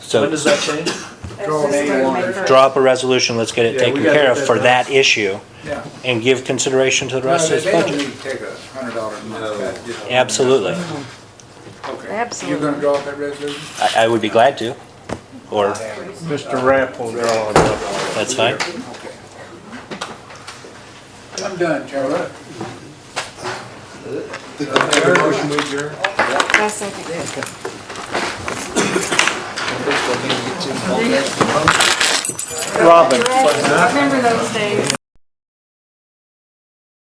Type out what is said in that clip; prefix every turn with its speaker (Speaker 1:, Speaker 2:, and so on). Speaker 1: So-
Speaker 2: When does that change?
Speaker 3: Go
Speaker 4: That's
Speaker 3: May
Speaker 4: just
Speaker 3: one.
Speaker 4: May first.
Speaker 1: Draw up a resolution, let's get it
Speaker 2: Yeah,
Speaker 1: taken
Speaker 2: we gotta
Speaker 1: care
Speaker 2: get
Speaker 1: of
Speaker 2: that
Speaker 1: for
Speaker 2: done.
Speaker 1: that issue
Speaker 3: Yeah.
Speaker 1: and give consideration to the
Speaker 3: No,
Speaker 1: rest
Speaker 3: They
Speaker 1: of this
Speaker 3: they don't
Speaker 1: budget.
Speaker 3: need to take a hundred dollar a month cut, just-
Speaker 1: Absolutely.
Speaker 3: Okay.
Speaker 4: Absolutely.
Speaker 3: You're gonna draw up that resolution?
Speaker 1: I, I would be glad to, or,
Speaker 2: Mr. Rapp will draw it up.
Speaker 1: that's fine.
Speaker 3: Okay. I'm done, Chairman.
Speaker 4: I second it.
Speaker 2: Robin.
Speaker 4: Remember those days.